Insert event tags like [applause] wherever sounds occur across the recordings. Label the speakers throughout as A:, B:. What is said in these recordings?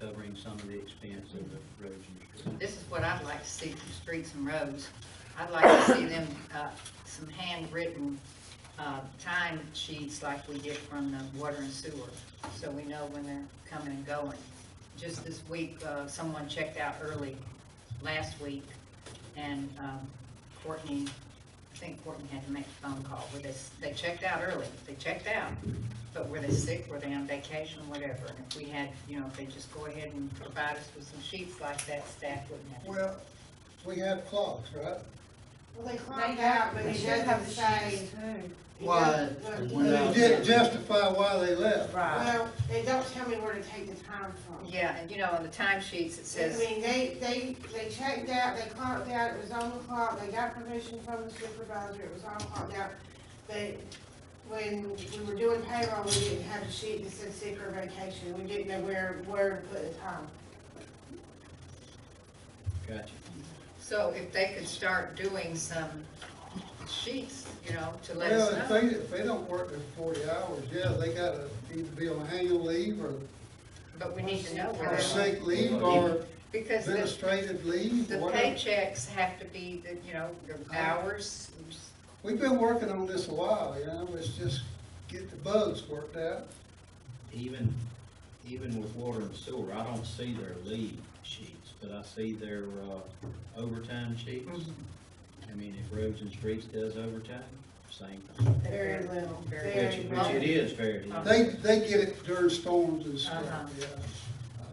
A: covering some of the expense of the roads and streets.
B: This is what I'd like to see from streets and roads. I'd like to see them, uh, some handwritten, uh, time sheets like we get from the water and sewer, so we know when they're coming and going. Just this week, uh, someone checked out early last week, and, um, Courtney, I think Courtney had to make a phone call, where they, s- they checked out early, they checked out, but were they sick, were they on vacation, whatever, and if we had, you know, if they just go ahead and provide us with some sheets like that, staff wouldn't have.
C: Well, we have clocks, right?
D: Well, they clocked out, but it doesn't say. it
E: Why?
D: doesn't-
E: When
C: And it didn't justify why they left.
E: Right.
D: Well, they don't tell me where to take the time from.
B: Yeah, and you know, on the time sheets, it
D: I
B: says,
D: mean, they, they, they checked out, they clocked out, it was on the clock, they got permission from the supervisor, it was all clocked out. But when we were doing payroll, we didn't have a sheet that said sick or vacation, we didn't know where, where to put the time.
A: Gotcha.
B: so if they could start doing some sheets, you know, to let
C: Well,
B: us
C: if
B: know.
C: they, if they don't work their forty hours, yeah, they gotta either be on annual leave or,
B: But we need to know where
C: or
B: they're,
C: sick leave or
B: because the,
C: administrative leave,
B: the
C: whatever.
B: paychecks have to be, the you know, the hours.
C: We've been working on this a while, you know, it's just get the bugs worked out.
A: Even, even with water and sewer, I don't see their leave sheets, but I see their uh, overtime sheets.
B: Mm-hmm.
A: I mean, if roads and streets does overtime, same thing,
D: Very little,
B: Very
D: very
A: which,
D: little.
A: which it is very,
C: They, they get it during storms and
B: Uh-huh.
C: stuff, yeah. Uh,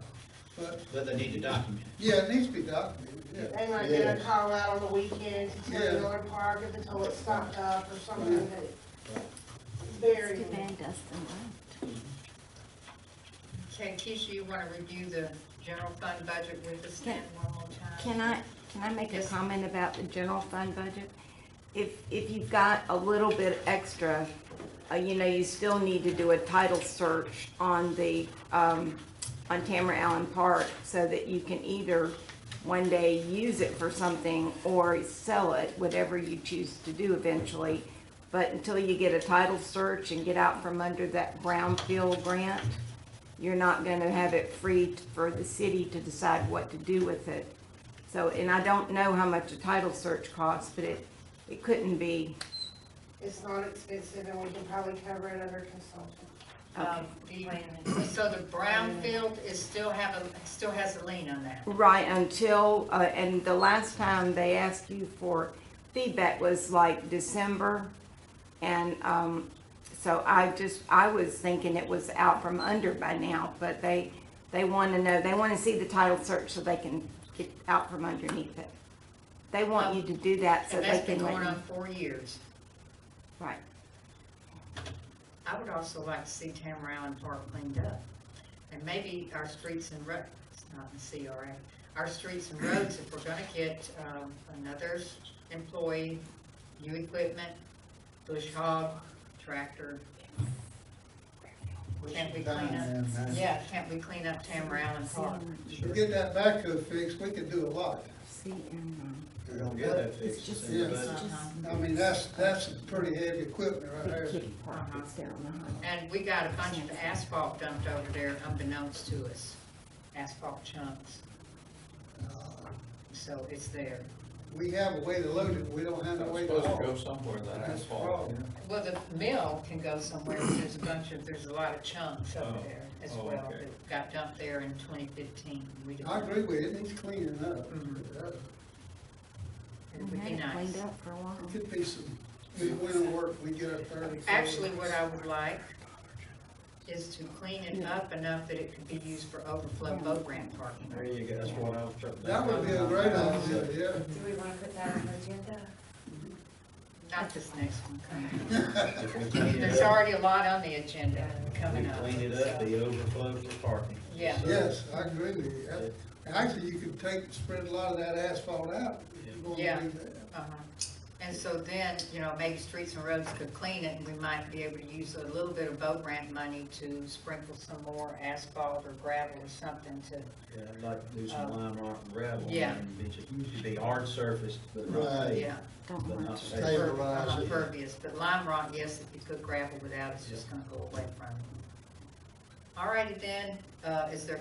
C: But,
A: but they need to document
C: yeah, it needs to be documented, yeah.
D: They might get a call out on the weekend to
C: Yeah.
D: tell Miller Park if the toilet stopped up or something, but
A: Right.
D: it's very,
F: Too bad Dustin left.
B: Okay, Keisha, you wanna review the general fund budget with us then one more time?
F: Can I, can I make a
B: Yes.
F: comment about the general fund budget? If, if you've got a little bit extra, uh, you know, you still need to do a title search on the, um, on Tamara Allen Park so that you can either one day use it for something or sell it, whatever you choose to do eventually. But until you get a title search and get out from under that brownfield grant, you're not gonna have it free for the city to decide what to do with it. So, and I don't know how much a title search costs, but it, it couldn't be,
D: it's not expensive and we can probably cover it under consultant.
B: Um, the- So the brownfield is still have a, still has a lien on that?
F: right, until, uh, and the last time they asked you for feedback was like December. And, um, so I just, I was thinking it was out from under by now, but they, they wanna know, they wanna see the title search so they can get out from underneath it. They want you to do that so
B: And
F: they
B: that's been
F: can let
B: going
F: you,
B: on four years.
F: right.
B: I would also like to see Tamara Allen Park cleaned up. And maybe our streets and roads, it's not in CRA, our streets and roads, if we're gonna get, um, another employee, new equipment, bush hog, tractor, can't we clean up? Yeah, can't we clean up Tamara Allen Park?
C: If we get that backhoe fixed, we could do a lot.
F: See, and,
A: it. Yeah, that fixes
F: just-
A: their
C: it's
A: budget.
C: I mean, that's, that's some pretty heavy equipment right
F: um, [laughs]
C: there.
F: big kitty park that's down the hall.
B: And we got a bunch of asphalt dumped over there unbeknownst to us, asphalt chunks,
C: Uh,
B: so it's there.
C: We have a way to load it, we don't have a way
G: It's
C: to
G: supposed to
C: haul.
G: go somewhere, that
C: That's the
G: asphalt.
C: problem.
B: Well, the mill can go somewhere, but there's a bunch of, there's a lot of chunks over
G: Oh,
B: there as
G: oh,
B: well
G: okay.
B: that got dumped there in twenty fifteen. We didn't-
C: I agree with you, it needs cleaning up.
B: It would be
F: Had it
B: nice.
F: Cleaned up for a while.
C: It Could be some, we went to work, we get our thirty.
B: Actually, what I would like is to clean it up enough that it could be used for overflow boat ramp parking.
A: There you go, that's what I was trying to.
C: That would be a great idea, yeah. [laughs]
H: Do we want to put that on the agenda?
B: Not this next one coming.
A: If we clean it
B: There's
A: up-
B: already a lot on the agenda
A: We
B: coming up.
A: clean it up,
B: so-
A: the overflow for parking.
B: Yeah.
C: Yes, I agree with you. That- Actually, you could take, spread a lot of that asphalt out. if you wanna
B: Yeah.
C: do that.
B: Uh-huh. And so then, you know, maybe streets and roads could clean it, and we might be able to use a little bit of boat ramp money to sprinkle some more asphalt or gravel or something to,
A: Yeah, I'd like to do some
B: Oh.
A: lime rock and gravel.
B: Yeah.
A: and It's a, used to be hard surfaced, but not
C: Right.
A: paved,
B: yeah.
F: Don't
A: but
F: want
A: not
F: to.
A: paved.
C: Stable.
B: per- uh,
C: Stabilize it.
B: Pervious, but lime rock, yes, if you could gravel without, it's just gonna go away from it. All righty then, uh, is there